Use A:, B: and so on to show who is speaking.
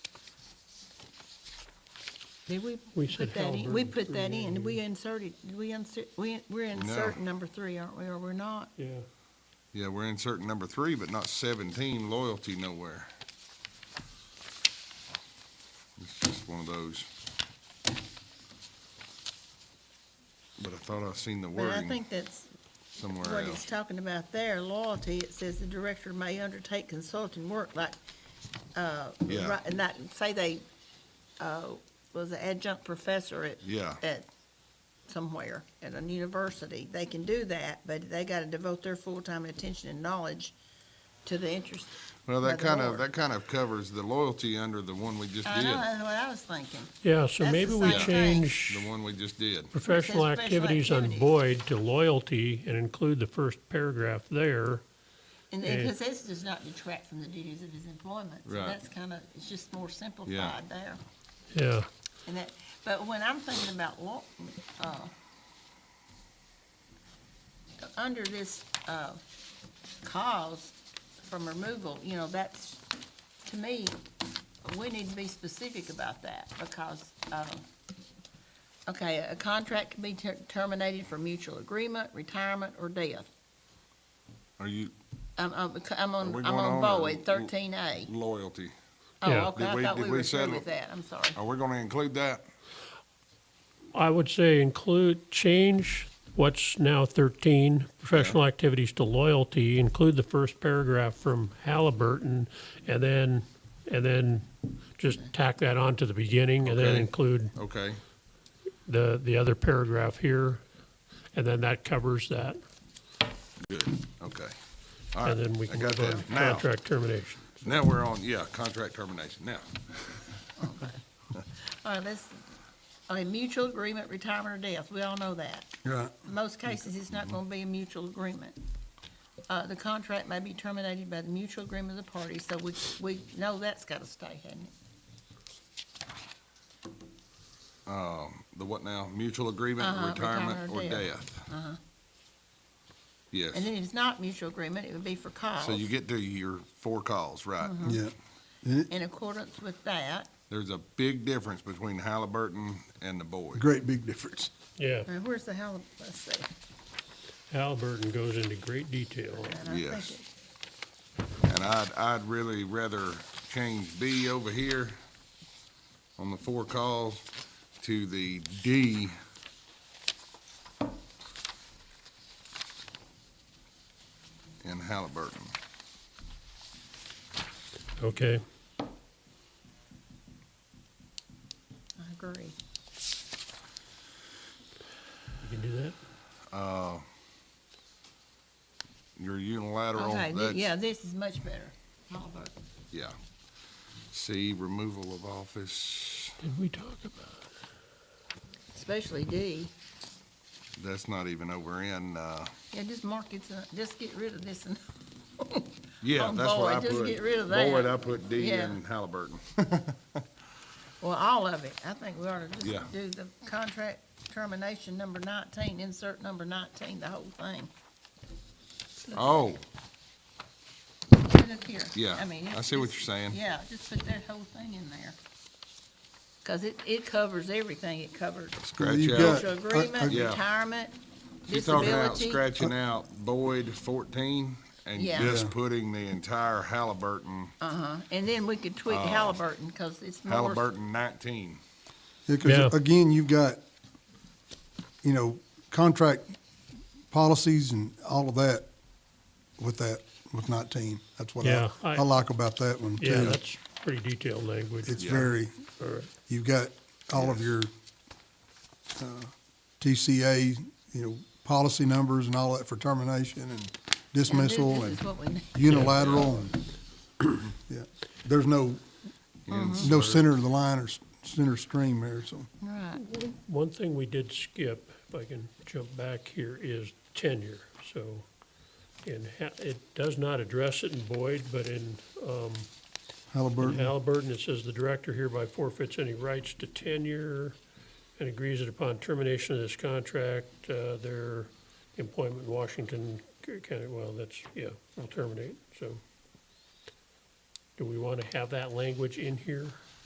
A: Did we
B: We
A: put
B: said
A: that in? We
B: Halliburton
A: put that
B: three,
A: in,
B: and-
A: we inserted, we insert, we, we're inserting number three, aren't we, or we're not?
B: Yeah,
C: Yeah, we're inserting number three, but not seventeen, loyalty nowhere. It's just one of those. But I thought I seen the
A: But I
C: wording
A: think that's
C: somewhere
A: what it's
C: else.
A: talking about there, loyalty, it says the director may undertake consulting work, like, uh,
C: Yeah.
A: right, and that, say they, uh, was an adjunct professor at
C: Yeah,
A: at somewhere, at a university. They can do that, but they gotta devote their full-time attention and knowledge to the interest.
C: well,
A: by
C: that
A: the
C: kind of,
A: Lord.
C: that kind of covers the loyalty under the one we just
A: I know,
C: did,
A: that's what I was thinking.
B: yeah, so
A: That's the
B: maybe we
A: same thing.
B: change
C: the one we just did.
B: professional
A: It says special
B: activities on
A: activities.
B: Boyd to loyalty and include the first paragraph there.
A: And then,
B: Yeah.
A: because this does not detract from the duties of his employment. So
C: Right.
A: that's kinda, it's just more simplified there.
B: Yeah,
A: And that, but when I'm thinking about law, uh, under this, uh, cause from removal, you know, that's, to me, we need to be specific about that because, uh, okay, a contract can be ter- terminated for mutual agreement, retirement, or death.
C: Are you
A: I'm, I'm, I'm
C: Are
A: on,
C: we
A: I'm
C: going
A: on
C: on or-
A: Boyd, thirteen A.
C: loyalty?
A: Oh,
B: Yeah.
A: okay,
C: Did
A: I
C: we-
A: thought
C: did
A: we
C: we
A: were through
C: settle- Oh.
A: with that, I'm sorry.
C: Are we gonna include that?
B: I would say include, change what's now thirteen, professional activities to loyalty, include the first paragraph from Halliburton, and then, and then just tack that on to the beginning, and then
C: Okay.
B: include
C: Okay,
B: the, the other paragraph here, and then that covers that.
C: good, okay. All
B: And
C: right,
B: then we
C: I
B: can
C: got
B: move on
C: that.
B: to
C: Now,
B: contract termination.
C: now we're on, yeah, contract termination. Now,
A: All right, let's, a mutual agreement, retirement or death, we all know that.
C: Right.
A: In most cases, it's not gonna be a mutual agreement. Uh, the contract may be terminated by the mutual agreement of the parties, so we, we know that's gotta stay, hasn't it?
C: the what now? Mutual agreement,
A: Uh-huh,
C: retirement, or
A: retirement or Uh-huh.
C: death?
A: And then
C: Yes.
A: if it's not mutual agreement, it would be for cause.
C: So you get to your four calls, right?
A: Mm-hmm.
D: Yeah,
A: In accordance with that,
C: There's a big difference between Halliburton and the Boyd.
D: great big difference.
B: Yeah,
A: uh, where's the hell, let's see.
B: Halliburton goes into great detail. on it.
A: And I think
C: Yes.
A: it-
C: And I'd, I'd really rather change B over here on the four calls to the D. In Halliburton.
B: Okay,
A: I agree.
B: you can do that?
C: Your unilateral,
A: Okay, thi-
C: that's,
A: yeah, this is much better. Oliver.
C: yeah. C, removal of office.
B: Did we talk about,
A: Especially D.
C: That's not even over in, uh,
A: Yeah, just mark it, uh, just get rid of this and
C: yeah,
A: On
C: that's what I
A: Boyd,
C: put.
A: Oh, just get rid of that.
C: Boyd, I put D
A: Yeah.
C: in Halliburton.
A: Well, all of it. I think we ought to
C: Yeah.
A: just do the contract termination number nineteen, insert number nineteen, the whole thing.
C: Oh,
A: Look here.
C: yeah,
A: I mean,
C: I
A: it's
C: see what
A: just-
C: you're saying.
A: Yeah, just put that whole thing in there. Cause it, it covers everything. It covers
C: Scratch
D: You've
C: out.
D: got-
A: social
D: I- I-
A: agreement,
C: Uh, Yeah.
A: retirement,
C: She's talking about
A: disability.
C: scratching out Boyd fourteen and
A: Yeah.
C: just
D: Yeah.
C: putting the entire Halliburton,
A: Uh-huh. And then we could tweak Halliburton, cause it's more.
C: Uh, Halliburton nineteen.
B: Yeah.
D: Yeah, because again, you've got, you know, contract policies and all of that with that, with nineteen. That's what I,
B: Yeah, I-
D: I like about that one too.
B: yeah, that's pretty detailed language.
D: It's
C: Yeah.
D: very,
B: All right.
D: you've got all of your, uh, TCA, you know, policy numbers and all that for termination and
A: And this-
D: dismissal
A: This
D: and
A: is what we need.
D: unilateral and, yeah. There's no, no center of the line or s- center stream there, so.
A: Right.
B: One thing we did skip, if I can jump back here, is tenure. So in, Ha- it does not address it in Boyd, but in in
D: Halliburton,
B: Halliburton, it says the director hereby forfeits any rights to tenure and agrees that upon termination of this contract, uh, their employment in Washington County, well, that's, yeah, will terminate, so. Do we want to have that language in here?